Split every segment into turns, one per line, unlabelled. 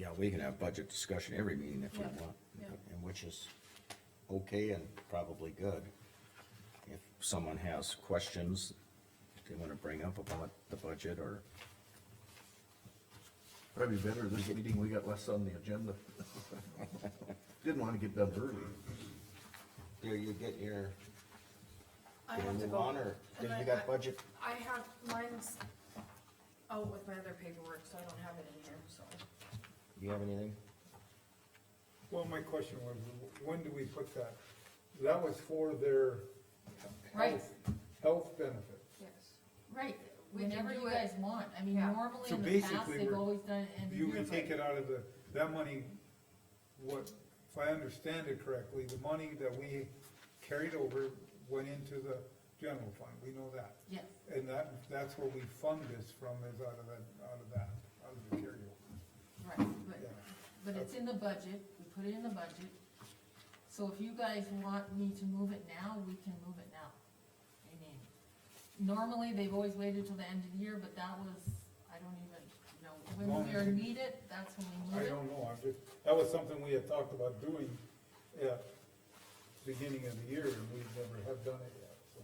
know, we can have budget discussion every meeting if we
Yeah,
want,
yeah.
and which is okay and probably good. If someone has questions they wanna bring up about the budget or,
Probably better this meeting, we got less on the agenda. Didn't wanna get done early.
there you get your,
I
your
have to
move
go.
on, or,
And
then
I-
you
I-
got budget,
I have, mine's out with my other paperwork, so I don't have it in here, so.
you have anything?
Well, my question was, when do we put that? That was for their
Right.
health, health benefit.
Yes.
Right,
Whenever
whenever you
you
guys want, I mean,
Yeah.
normally
So
in the past,
basically,
they've
we're-
always done it in.
You would take it out of the, that money, what, if I understand it correctly, the money that we carried over went into the general fund, we know that.
Yes,
And that, that's where we fund this from, is out of that, out of that, out of the carryover.
right, but,
Yeah.
but it's in the budget, we put it in the budget, so if you guys want me to move it now, we can move it now. I mean, normally, they've always waited till the end of the year, but that was, I don't even know, when we
Long.
are needed, that's when we
I
need it.
don't know, I'm just, that was something we had talked about doing at the beginning of the year, and we never have done it yet, so.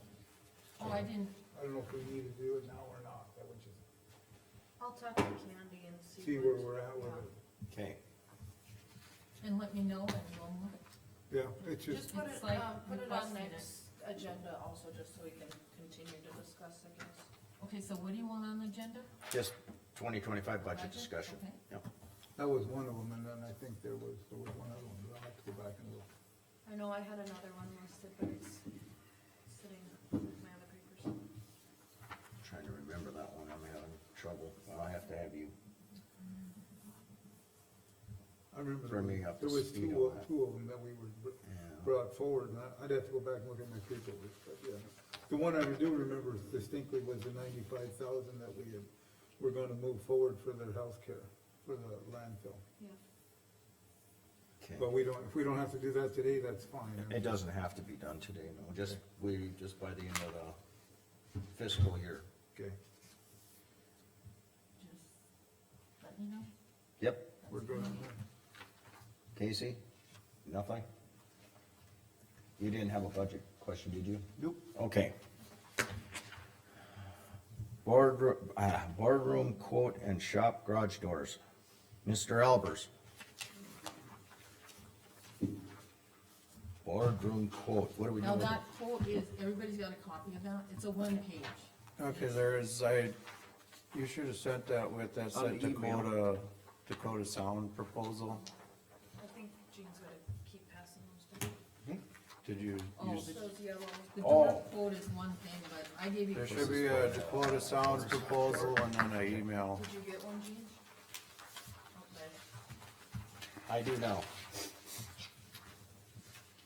Oh, I didn't,
I don't know if we need to do it now or not, that would just
I'll talk to Candy and see.
see where we're at with
Yeah.
it.
Okay,
and let me know, and we'll move it.
Yeah, it's just,
Just put
It's
it,
like
uh, put it on
requesting it.
next agenda also, just so we can continue to discuss, I guess.
Okay, so what do you want on the agenda?
just twenty twenty-five budget
Budget?
discussion,
Okay.
Yep.
that was one of them, and then I think there was, there was one other one, but I'll have to go back and look.
I know I had another one listed, but it's sitting with my other papers.
Trying to remember that one, I'm having trouble, I'll have to have you,
I remember.
Bring
there
me up
There
to
was
speed
two,
on that.
two of them that we were br-
yeah,
brought forward, and I- I'd have to go back and look at my paperwork, but yeah. The one I do remember distinctly was the ninety-five thousand that we had, were gonna move forward for their healthcare, for the landfill.
Yeah.
okay.
But we don't, if we don't have to do that today, that's fine.
It doesn't have to be done today, no, just, we, just by the end of the fiscal year.
Okay,
Just let me know.
Yep,
we're good.
Casey, nothing? You didn't have a budget question, did you?
Nope.
Okay. Boardroom, uh, boardroom quote and shop garage doors. Mr. Albers. Boardroom quote, what are we
Now,
doing?
that quote is, everybody's got a copy of that, it's a one page.
Okay, there is, I, you should have sent that with that said
On the email.
Dakota, Dakota Sound proposal.
I think Jean's gonna keep passing those down.
Did you,
Oh,
you-
the-
Those yellow.
the
Oh.
dark quote is one thing, but I gave you.
there should be a Dakota Sound proposal and then an email.
Did you get one, Jean? Okay.
I do now.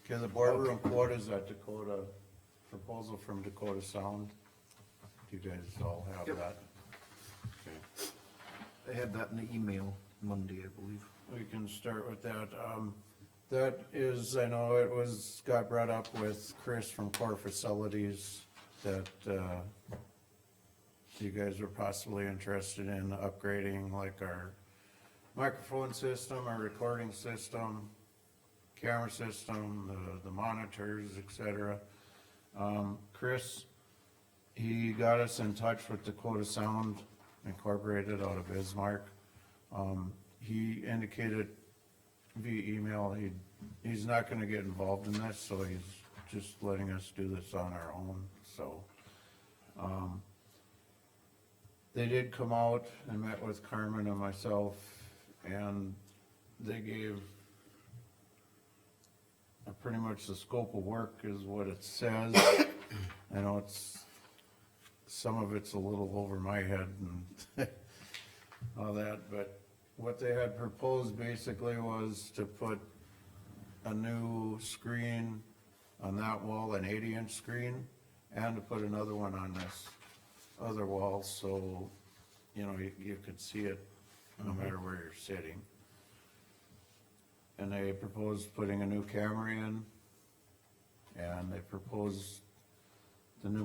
Cause the boardroom quote is that Dakota, proposal from Dakota Sound. Do you guys all have
Yep.
that?
I had that in the email Monday, I believe.
We can start with that. Um, that is, I know it was, got brought up with Chris from Core Facilities that, uh, you guys were possibly interested in upgrading like our microphone system, our recording system, camera system, the, the monitors, et cetera. Um, Chris, he got us in touch with Dakota Sound Incorporated out of Bismarck. Um, he indicated via email, he, he's not gonna get involved in this, so he's just letting us do this on our own, so. um, They did come out and met with Carmen and myself, and they gave uh, pretty much the scope of work is what it says. I know it's, some of it's a little over my head and all that, but what they had proposed basically was to put a new screen on that wall, an eighty-inch screen, and to put another one on this other wall, so, you know, you, you could see it no matter where you're sitting. And they proposed putting a new camera in, and they proposed the new